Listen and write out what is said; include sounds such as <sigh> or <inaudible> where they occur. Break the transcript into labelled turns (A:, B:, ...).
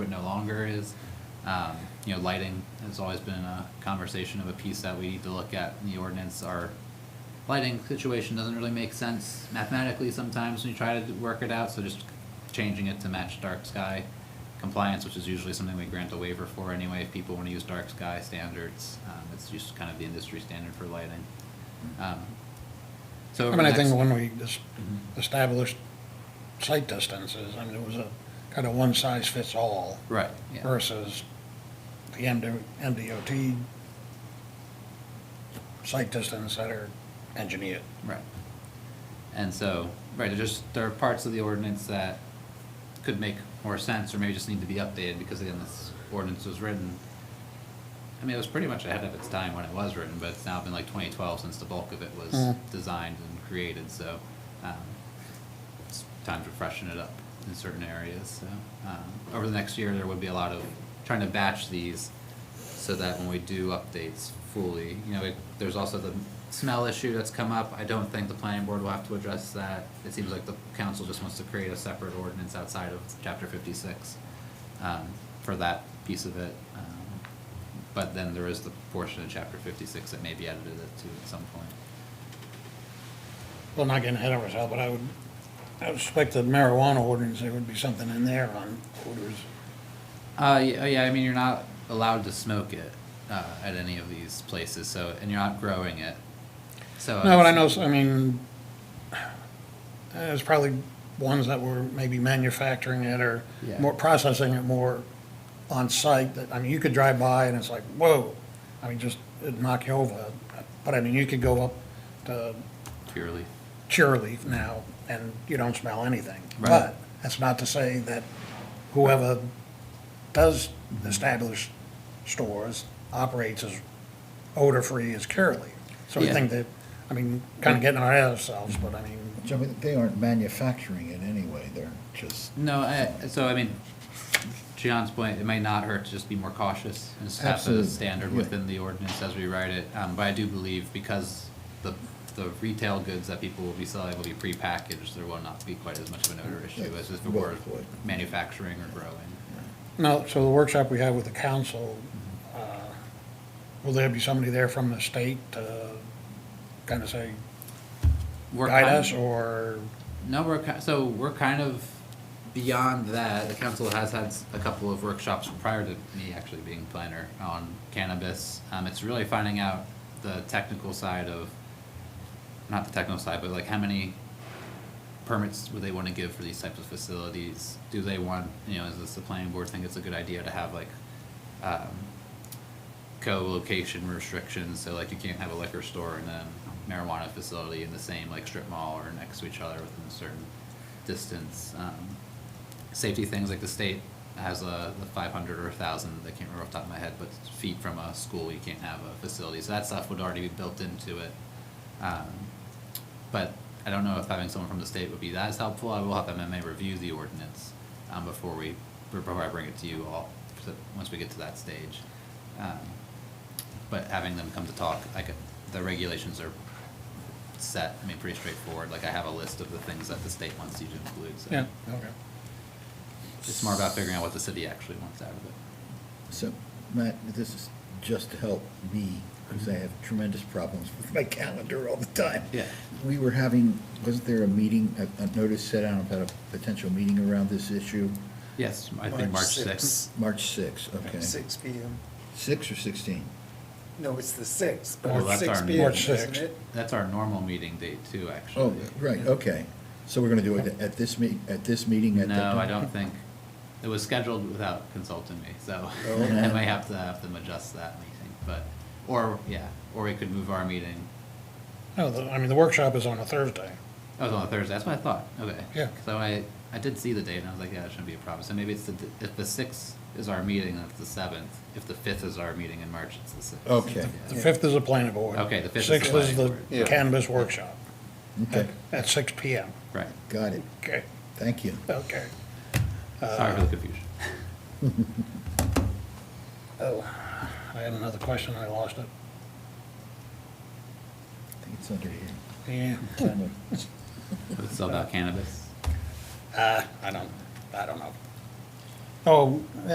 A: longer is, um, you know, lighting has always been a conversation of a piece that we need to look at in the ordinance. Our lighting situation doesn't really make sense mathematically sometimes when you try to work it out, so just changing it to match dark sky compliance, which is usually something we grant a waiver for anyway, if people wanna use dark sky standards, um, it's just kind of the industry standard for lighting. Um, So.
B: I
A: over
B: mean, I
A: the
B: think
A: next-
B: when we just established sight distances, I mean, it was a kind of one size fits all
A: Right, yeah.
B: versus the MD MDOT sight distance that are engineered.
A: Right. And so, right, there just, there are parts of the ordinance that could make more sense, or maybe just need to be updated, because again, this ordinance was written. I mean, it was pretty much ahead of its time when it was written, but it's now been like twenty twelve since the bulk of it was
B: Mhm.
A: designed and created, so, um, it's time to freshen it up in certain areas, so, um, over the next year, there would be a lot of trying to batch these so that when we do updates fully, you know, it, there's also the smell issue that's come up. I don't think the planning board will have to address that. It seems like the council just wants to create a separate ordinance outside of chapter fifty-six, um, for that piece of it. Um, But then there is the portion of chapter fifty-six that may be edited to at some point.
B: Well, not getting ahead of ourselves, but I would, I would expect the marijuana ordinance, there would be something in there on odors.
A: Uh, yeah, yeah, I mean, you're not allowed to smoke it, uh, at any of these places, so, and you're not growing it, so.
B: No, but I
A: it's-
B: know, I mean, there's probably ones that were maybe manufacturing it or
A: Yeah.
B: more, processing it more on-site, that, I mean, you could drive by and it's like, whoa, I mean, just it'd knock you over. But I mean, you could go up to
A: Purely.
B: Curaleaf now and you don't smell anything.
A: Right.
B: But that's not to say that whoever does establish stores operates as odor-free as Curaleaf. So I
A: Yeah.
B: think that, I mean, kind of getting our ahead of ourselves, but I mean,
C: Which, I mean, they aren't manufacturing it anyway, they're just.
A: No, I, so I mean, John's point, it may not hurt to just be more cautious and just have the
C: Absolutely,
A: standard
C: yeah.
A: within the ordinance as we write it. Um, but I do believe because the, the retail goods that people will be selling will be prepackaged, there will not be quite as much of an odor issue as if it were
C: Would.
A: manufacturing or growing.
B: no, so the workshop we have with the council, uh, will there be somebody there from the state to kind of say,
A: We're
B: guide
A: kind-
B: us or?
A: No, we're ki- so we're kind of beyond that. The council has had s- a couple of workshops prior to me actually being planner on cannabis. Um, it's really finding out the technical side of, not the technical side, but like how many permits would they want to give for these types of facilities? Do they want, you know, is this the planning board think it's a good idea to have like, um, co-location restrictions, so like you can't have a liquor store and a marijuana facility in the same like strip mall or next to each other within a certain distance. Um, safety things like the state has a the 500 or 1,000, I can't remember off the top of my head, but feet from a school you can't have a facility. So that stuff would already be built into it. Um, but I don't know if having someone from the state would be as helpful. I will have MMA review the ordinance um, before we before I bring it to you all. So once we get to that stage, um, but having them come to talk, like the regulations are set. I mean, pretty straightforward. Like I have a list of the things that the state wants you to include. So
B: Yeah, okay.
A: it's more about figuring out what the city actually wants out of it.
C: So, Matt, this is just to help me, because I have tremendous problems with my calendar all the time.
A: Yeah.
C: We were having, wasn't there a meeting, a, a notice set out about a potential meeting around this issue?
A: Yes, I think March
D: March
A: sixth.
C: March sixth, okay.
D: Six P M.
C: Six or sixteen?
D: No, it's the sixth, but
A: Well,
D: it's
A: that's
D: six
A: our
D: P M,
B: March
D: isn't
B: 6th.
D: it?
A: That's our normal meeting date too,
C: Oh,
A: actually.
C: right, okay. So we're gonna do it at this meet, at this meeting at the.
A: No, I don't think, it was scheduled without consulting me, so
C: Oh.
A: <laughs> I may have to have them adjust that meeting, but, or, yeah, or we could move our meeting.
B: No, the- I mean, the workshop is on a Thursday.
A: That was Oh, on a Thursday, that's what I thought, okay.
B: Yeah.
A: So I, I did see the date and I was like, yeah, that shouldn't be a problem, so maybe it's the, if the sixth is our meeting, that's the seventh. If the fifth is our meeting in March, it's the sixth.
C: Okay.
B: The fifth is the planning board.
A: Okay, the fifth is the
B: Sixth is
A: planning
B: the
A: board.
D: Yeah.
B: cannabis workshop
C: Okay,
B: at six P M.
A: Right,
C: got it.
B: Okay,
C: Thank you.
B: okay.
A: sorry for the confusion.
B: Oh, I had another question, I lost it.
C: I think it's under here.
B: Yeah.
C: Kind of-
A: It's all about cannabis.
B: Uh, I don't, I don't know. Oh,